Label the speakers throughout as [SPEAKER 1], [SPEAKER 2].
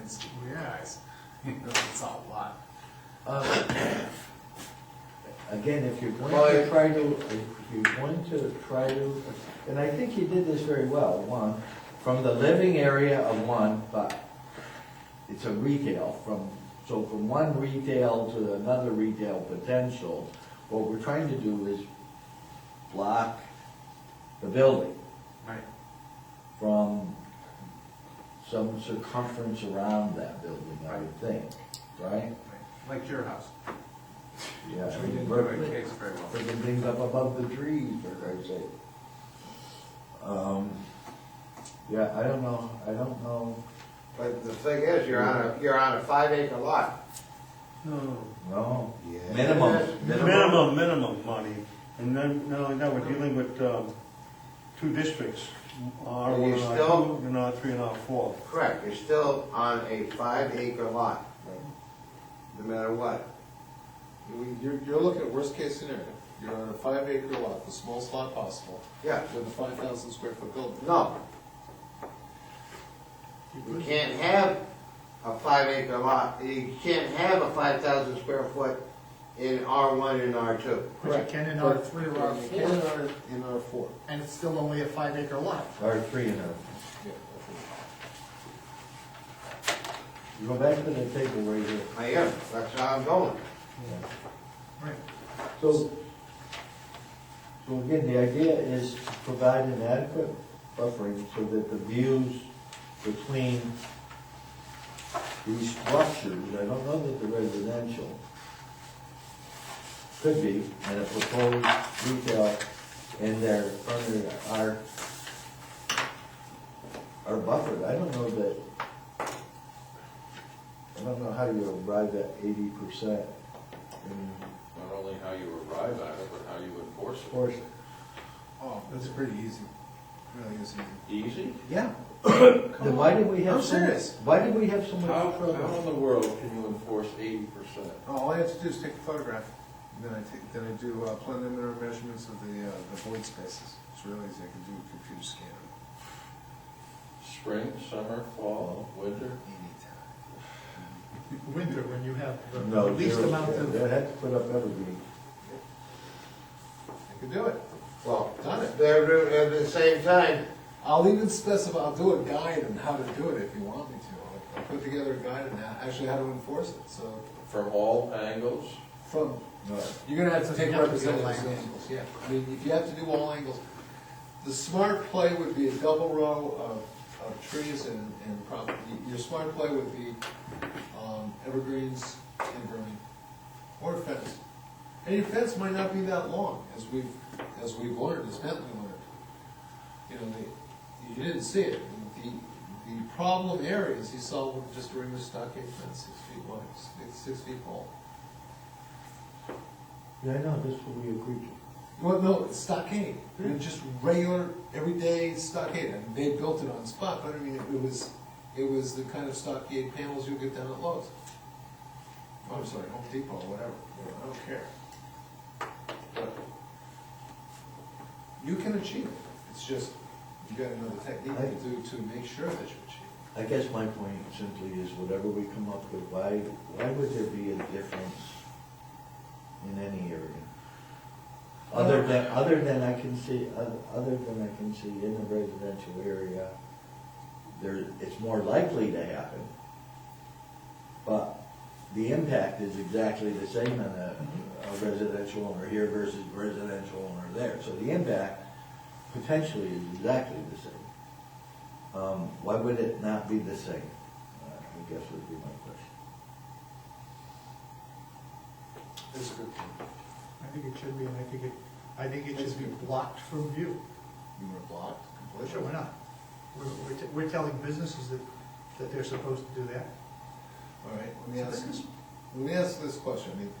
[SPEAKER 1] and see you guys. You know, it's a lot. Uh,
[SPEAKER 2] Again, if you're going
[SPEAKER 3] Well, I-
[SPEAKER 2] to try to, if you're going to try to, and I think you did this very well, one, from the living area of one, but it's a retail from, so from one retail to another retail potential, what we're trying to do is block the building
[SPEAKER 1] Right,
[SPEAKER 2] from some circumference around that building, I would think, right?
[SPEAKER 1] right. like your house,
[SPEAKER 2] Yeah.
[SPEAKER 1] which we didn't do in case very well.
[SPEAKER 2] Picking things up above the trees, for Christ's sake. Um, yeah, I don't know, I don't know,
[SPEAKER 3] But the thing is, you're on a, you're on a five acre lot.
[SPEAKER 4] No.
[SPEAKER 2] no.
[SPEAKER 3] Yeah.
[SPEAKER 2] Minimum, minimum.
[SPEAKER 4] Minimum, minimum money, and then, no, now we're dealing with, um, two districts,
[SPEAKER 3] Are
[SPEAKER 4] R one
[SPEAKER 3] you
[SPEAKER 4] and R
[SPEAKER 3] still-
[SPEAKER 4] two, and R three and R four.
[SPEAKER 3] Correct, you're still on a five acre lot, no matter what.
[SPEAKER 5] I mean, You're, you're looking at worst case scenario, you're on a five acre lot, the smallest lot possible,
[SPEAKER 3] Yeah,
[SPEAKER 5] with a five thousand square foot building.
[SPEAKER 3] no. You can't have a five acre lot, you can't have a five thousand square foot in R one and R two.
[SPEAKER 1] But you can in R three or R
[SPEAKER 5] You can in
[SPEAKER 1] four,
[SPEAKER 5] R, in R four.
[SPEAKER 1] and it's still only a five acre lot.
[SPEAKER 2] Or three and a,
[SPEAKER 5] Yeah, I think.
[SPEAKER 2] you go back to the table right here.
[SPEAKER 3] I am, that's how I'm going.
[SPEAKER 2] Yeah.
[SPEAKER 1] Right.
[SPEAKER 2] So, so again, the idea is to provide an adequate buffering so that the views between these structures, I don't know that they're residential, could be, and a proposed retail in their front yard are, are buffered. I don't know that, I don't know how you arrive at eighty percent in
[SPEAKER 6] Not only how you arrive at it, but how you enforce it.
[SPEAKER 2] proportion.
[SPEAKER 5] Oh,
[SPEAKER 1] That's pretty easy, really easy.
[SPEAKER 6] Easy?
[SPEAKER 1] Yeah.
[SPEAKER 2] Then why did we have
[SPEAKER 1] I'm
[SPEAKER 2] so, much-
[SPEAKER 1] serious.
[SPEAKER 2] why did we have so
[SPEAKER 6] How,
[SPEAKER 2] much
[SPEAKER 6] how
[SPEAKER 2] trouble?
[SPEAKER 6] in the world can you enforce eighty percent?
[SPEAKER 5] all I have to do is take a photograph, then I take, then I do uh, preliminary measurements of the, uh, the void spaces. It's really easy, I can do a computer scanner
[SPEAKER 6] Spring, summer, fall, winter?
[SPEAKER 5] anytime.
[SPEAKER 1] Winter, when you have the the
[SPEAKER 2] No,
[SPEAKER 1] least
[SPEAKER 2] zero,
[SPEAKER 1] amount
[SPEAKER 2] yeah,
[SPEAKER 1] of.
[SPEAKER 2] they had to put up evergreen.
[SPEAKER 5] I can do it.
[SPEAKER 3] Well,
[SPEAKER 5] Done it.
[SPEAKER 3] they're, at the same time,
[SPEAKER 5] I'll even specify, I'll do a guide on how to do it if you want me to. I'll put together a guide on how, actually how to enforce it, so
[SPEAKER 6] From all angles?
[SPEAKER 5] from
[SPEAKER 2] No.
[SPEAKER 5] You're gonna have to take
[SPEAKER 1] You have to do all
[SPEAKER 5] representative
[SPEAKER 1] angles.
[SPEAKER 5] angles, yeah. I mean, if you have to do all angles, the smart play would be a double row of, of trees and, and probably, your smart play would be, um, evergreens and vermin, or a fence. And your fence might not be that long, as we've, as we've learned, as Bentley learned. You know, the, you didn't see it, the, the problem areas he saw were just a regular stockade fence, six feet wide, six, six feet tall.
[SPEAKER 2] Yeah, I know, this will be a creature.
[SPEAKER 5] Well, no, it's stockade, It was just regular, everyday stockade, and they built it on spot, but I mean, it was, it was the kind of stockade panels you get down at Lowe's. Oh, I'm sorry, Home Depot, whatever, you know, I don't care. But You can achieve it, it's just, you got another technique to do to make sure that you achieve
[SPEAKER 2] I guess my point simply is whatever we come up with, why, why would there be a difference in any area? Other than, other than I can see, oth- other than I can see in the residential area, there, it's more likely to happen. But the impact is exactly the same on a a residential owner here versus residential owner there. So the impact potentially is exactly the same. Um, Why would it not be the same? Uh, I guess would be my question.
[SPEAKER 5] it. That's a good point.
[SPEAKER 1] I think it should be, and I think it, I think it should be blocked from view.
[SPEAKER 5] You were blocked completely.
[SPEAKER 1] Sure, why not? We're, we're, t- we're telling businesses that, that they're supposed to do that.
[SPEAKER 5] All right, let me ask, let me ask this question, I mean,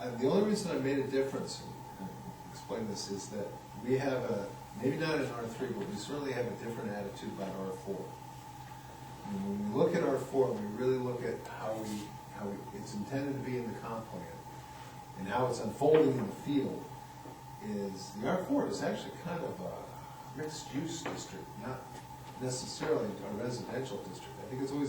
[SPEAKER 5] uh, the only reason I made a difference, and explain this, is that we have a, maybe not in R three, but we certainly have a different attitude about R four. And when we look at R four, we really look at how we, how we- it's intended to be in the comp plan, and how it's unfolding in the field, is, the R four is actually kind of a mixed-use district, not necessarily a residential district, I think it's always